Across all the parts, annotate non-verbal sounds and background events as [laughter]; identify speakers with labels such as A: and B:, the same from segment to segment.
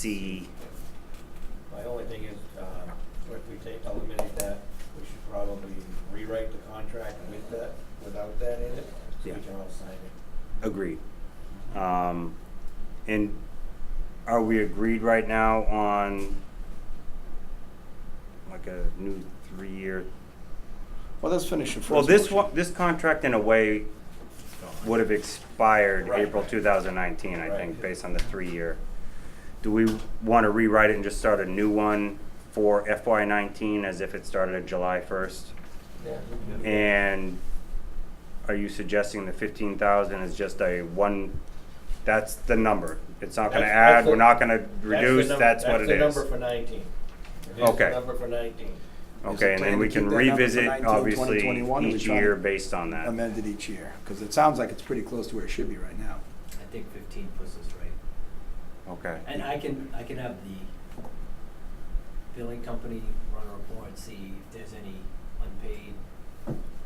A: see,
B: My only thing is, um, if we take, eliminate that, we should probably rewrite the contract with that, without that in it, so
A: Yeah.
B: we can all sign it.
A: agreed. Um, and are we agreed right now on like a new three-year?
C: Well, let's finish the first.
A: Well, this
C: motion.
A: one, this contract in a way would have expired
B: Right.
A: April two thousand nineteen, I
B: Right.
A: think, based on the three-year. Do we want to rewrite it and just start a new one for FY nineteen as if it started at July first?
B: Yeah.
A: And are you suggesting the fifteen thousand is just a one, that's the number? It's not gonna
B: That's- that's
A: add, we're
B: the-
A: not gonna
B: the
A: reduce,
B: num-
A: that's what it
B: the
A: is.
B: number for nineteen. It is the
A: Okay.
B: number for nineteen.
C: Is
A: Okay,
C: the
A: and
C: plan
A: then we
C: to
A: can
C: keep that number for
A: revisit,
C: 19,
A: obviously,
C: 2021, and we
A: each
C: try to
A: year based on that.
C: Amended each year, because it sounds like it's pretty close to where it should be right now.
D: I think fifteen puts us right.
A: Okay.
D: And I can, I can have the billing company run a report and see if there's any unpaid,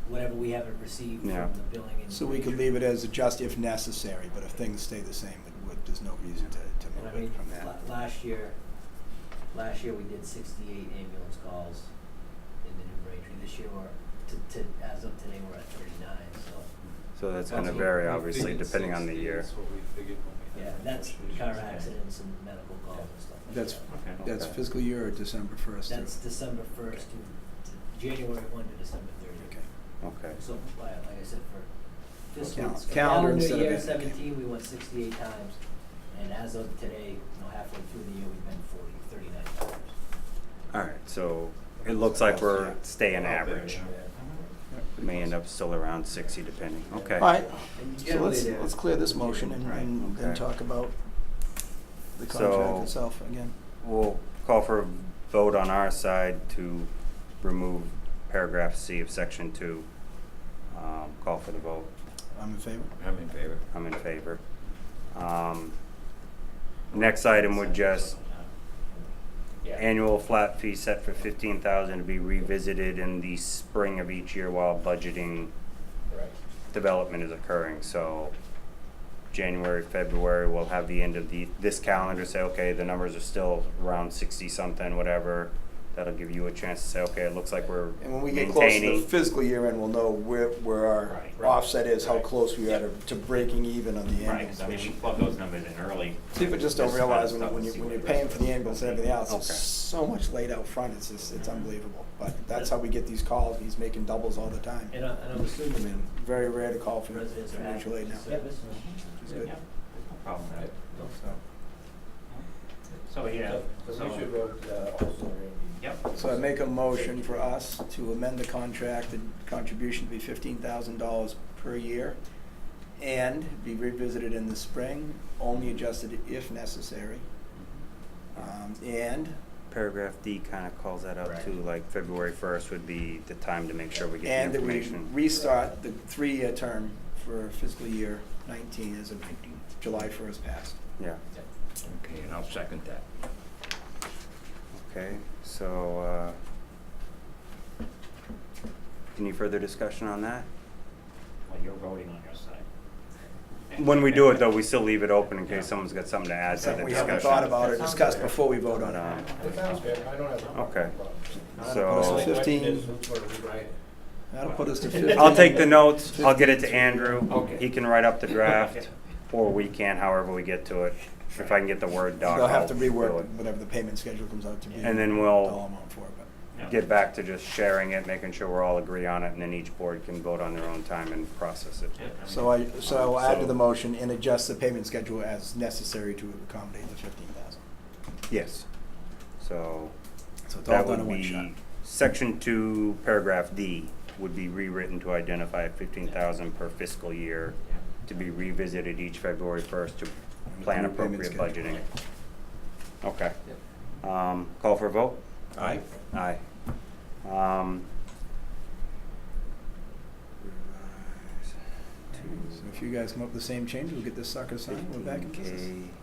D: whatever we haven't received from
A: Yeah.
D: the billing. in-
C: So we could leave it as adjust if necessary, but if things stay the same, it would- there's no reason to, to
D: And I
C: move it
D: mean,
C: from
D: la-
C: that.
D: last year, last year we did sixty-eight ambulance calls in the New Braintree. This year we're, to, to, as of today, we're at thirty-nine, so,
A: So that's gonna
E: what
A: vary,
E: we
A: obviously,
E: figured
A: depending on the
E: 60
A: year.
E: is what we figured when we
D: yeah,
E: had the
D: that's
E: negotiations.
D: car
E: Yeah.
D: accidents and medical calls and stuff like that.
C: That's,
E: Okay.
C: that's
A: Okay.
C: fiscal year or December first?
D: That's December first to, to January one to December thirty.
C: Okay.
A: Okay.
D: So, like, like I said, for fiscal,
C: Cal- calendar
D: for calendar
C: instead of
D: year
C: end, okay.
D: seventeen, we went sixty-eight times. And as of today, you know, halfway through the year, we've been forty, thirty-nine times.
A: All right, so it looks like we're staying
E: About there,
A: average.
E: yeah.
A: We May end up still around sixty depending, okay.
C: All right,
D: And
C: so let's,
D: generally,
C: let's
D: they're-
C: clear this motion and,
A: Right,
C: and then
A: okay.
C: talk about the
A: So-
C: contract itself again.
A: We'll call for a vote on our side to remove paragraph C of section two. Um, call for the vote.
C: I'm in favor.
E: I'm in favor.
A: I'm in favor. Um, next item would just
B: Yeah.
A: annual flat fee set for fifteen thousand to be revisited in the spring of each year while budgeting
B: Right.
A: development is occurring, so January, February, we'll have the end of the, this calendar, say, okay, the numbers are still around sixty something, whatever. That'll give you a chance to say, okay, it looks like we're
C: And when we get close to the
A: maintaining.
C: fiscal year end, we'll know where, where our
F: Right.
C: offset is, how
B: Right.
C: close we are to, to breaking even on the
F: Right,
C: ambulance.
F: because I mean,
C: which-
F: we plug those numbers in early.
C: People just don't
F: This kind of
C: realize when,
F: stuff
C: when
F: to
C: you,
F: see
C: when
F: what
C: you're
F: the rest
C: paying
F: of
C: for the
F: the
C: ambulance and
F: company-
C: everything else, it's
A: Okay.
C: so much laid out front, it's just, it's unbelievable. But that's how we get these calls, he's making doubles all the time.
D: And I, and I'm
C: I mean,
D: assuming
C: very rare to call for
D: residents are happy
C: financial aid
D: with the
C: now.
D: service.
C: It's good.
F: Yeah, there's no problem with it.
C: So-
F: So, yeah,
B: So we should
F: so,
B: vote, uh, also, Randy.
F: yep.
C: So I make a motion for us to amend the contract and contribution to be fifteen thousand dollars per year and be revisited in the spring, only adjusted if necessary. Um, and
A: Paragraph D kind of calls that out
B: Right.
A: too, like February first would be the time to make sure we get
C: And
A: the
C: that we
A: information.
C: restart the three-year term for fiscal year nineteen as of July first passed.
A: Yeah,
E: Okay, and I'll second that.
A: okay, so, uh, any further discussion on that?
F: Well, you're voting on your side.
A: When we do it though, we still leave it open in case someone's got something to add to the
C: Something
A: discussion.
C: we haven't thought about or discussed before we vote
A: But,
C: on it.
A: um,
B: That sounds good, I don't have a problem.
A: Okay.
B: My only
A: So-
B: question
C: 15.
B: is who's gonna rewrite it?
C: That'll put us to
A: [laughs]
C: fifteen.
A: I'll take the notes, I'll get it to Andrew,
E: Okay.
A: he can write up the draft, or we can, however we get to it. If I can get the Word doc,
C: They'll have to
A: I'll do
C: rework
A: it.
C: whatever the payment schedule comes out to be.
A: And then we'll-
C: All amount for, but
F: Yeah.
A: Get back to just sharing it, making sure we're all agree on it, and then each board can vote on their own time and process it.
F: Yeah, mean,
C: So I, so I'll add to the
F: so-
C: motion and adjust the payment schedule as necessary to accommodate the fifteen thousand.
A: Yes. So
C: So it's all
A: that
C: done
A: would
C: in one shot.
A: be, section two, paragraph D would be rewritten to identify fifteen thousand per fiscal year to be revisited each February first to plan
C: New payment
A: appropriate
C: schedule.
A: budgeting. Okay. Um, call for a vote?
C: Aye.
A: Aye. Um,
C: So if you guys come up with the same change, we'll get this sucker signed, we're back in business.
A: K